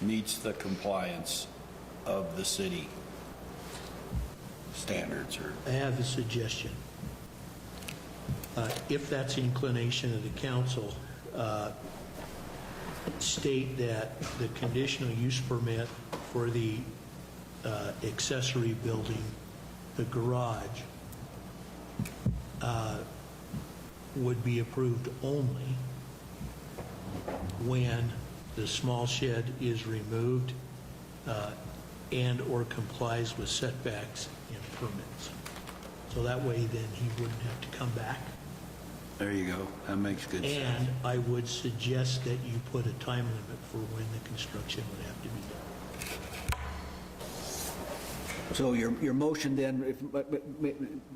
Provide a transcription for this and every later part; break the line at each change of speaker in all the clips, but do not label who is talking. meets the compliance of the city standards or,
I have a suggestion. Uh, If that's the inclination of the council, uh, state that the conditional use permit for the uh, accessory building, the garage, uh, would be approved only when the small shed is removed uh, and/or complies with setbacks and permits. So that way, then, he wouldn't have to come back.
there you go. That makes good sense.
And I would suggest that you put a time limit for when the construction would have to be done.
So your, your motion then if- but- but-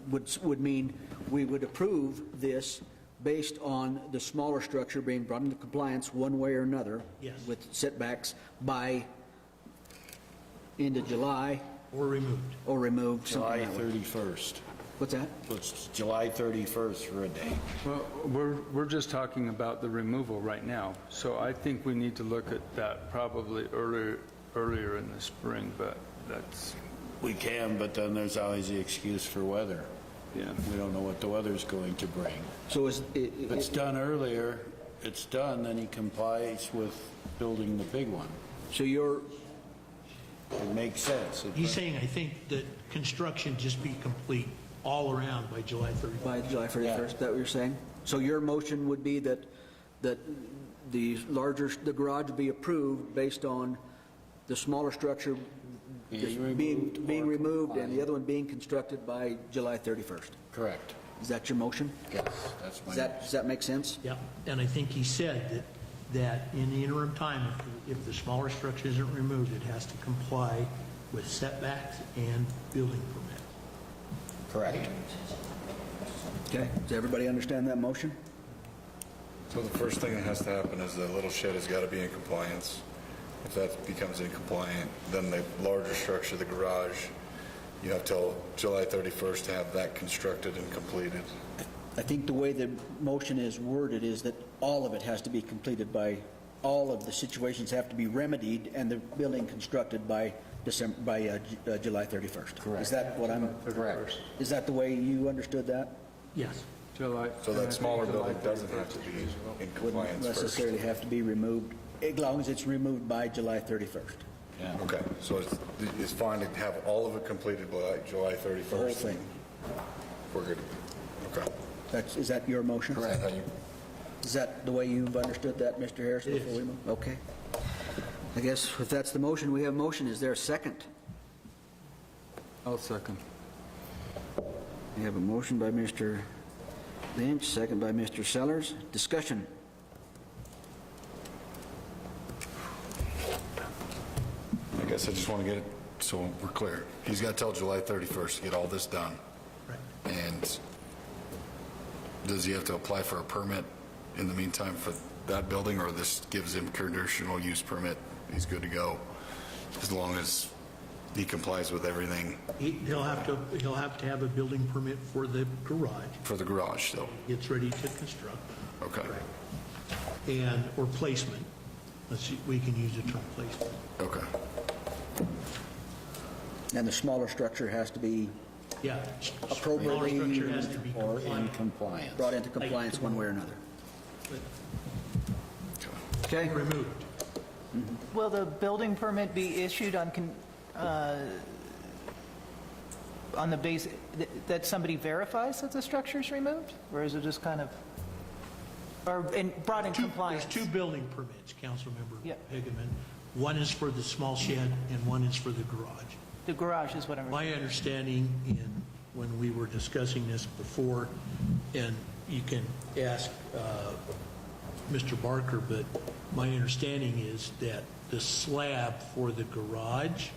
would, would mean we would approve this based on the smaller structure being brought into compliance one way or another?
Yes.
With setbacks by end of July
Or removed.
or removed, something
July
that way.
31st.
What's that?
Let's, July 31st for a day.
Well, we're, we're just talking about the removal right now, so I think we need to look at that probably earlier, earlier in the spring, but that's,
We can, but then there's always the excuse for weather.
yeah.
We don't know what the weather's going to bring.
So is, i-
If
i-
it's done earlier, it's done, then he complies with building the big one.
so your,
It makes sense. It-
He's saying, I think, that construction just be complete all around by July 31st.
by July 31st, is that what you're saying? So your motion would be that, that the larger, the garage be approved based on the smaller structure
Is
being,
removed
being
or
removed and the
compliant.
other one being constructed by July 31st.
Correct.
Is that your motion?
Yes, that's my.
Does that, does that make sense?
Yeah, and I think he said that, that in the interim time, if, if the smaller structure isn't removed, it has to comply with setbacks and building permits.
Correct.
Okay, does everybody understand that motion?
So the first thing that has to happen is the little shed has got to be in compliance. If that becomes incompliant, then the larger structure, the garage, you have till July 31st to have that constructed and completed.
I think the way the motion is worded is that all of it has to be completed by, all of the situations have to be remedied and the building constructed by December, by uh, Ju- uh, July 31st. Correct. Is that what I'm?
Correct.
Is that the way you understood that?
Yes.
July.
So that smaller
July
building doesn't have to
31st.
be in
Wouldn't
compliance first.
necessarily have to be removed, as long as it's removed by July 31st.
Yeah.
Okay, so it's, it's fine to have all of it completed by July 31st?
The whole thing.
We're good. Okay.
That's, is that your motion?
Is that how you-
Is that the way you've understood that, Mr. Harris?
Yes.
before we move? Okay. I guess if that's the motion, we have a motion. Is there a second?
I'll second.
We have a motion by Mr. Lynch, second by Mr. Sellers. Discussion.
I guess I just want to get it so we're clear. He's got till July 31st to get all this done.
Right.
And does he have to apply for a permit in the meantime for that building, or this gives him conditional use permit? He's good to go, as long as he complies with everything
He- He'll have to, he'll have to have a building permit for the garage,
for the garage, though?
gets ready to construct,
Okay,
and, or placement. Let's see, we can use the term placement.
okay.
And the smaller structure has to be
Yeah. Smaller
Appropriately-
structure has to be
Or in
compliant.
compliance.
brought into compliance one way or another. Okay?
Removed.
Will the building permit be issued on, con- uh, on the base, th- that somebody verifies that the structure's removed? Or is it just kind of, or in- brought in
Two-
compliance?
There's two building permits,
Yeah.
Councilmember Hickman. One is for the small shed and one is for the garage.
The garage is what I'm,
My understanding, in, when we were discussing this before, and you can ask uh, Mr. Barker, but my understanding is that the slab for the garage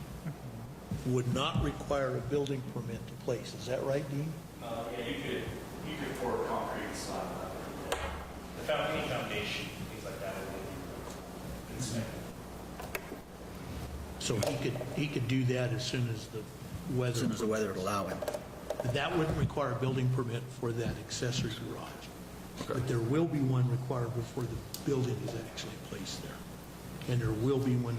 would not require a building permit to place. Is that right, Dean?
Uh, yeah, you could, you could pour concrete slab on it. The found any foundation, things like that, would be inspected.
So he could, he could do that as soon as the weather.
As soon as the weather would allow him.
That wouldn't require a building permit for that accessory garage. But there will be one required before the building is actually placed there. And there will be one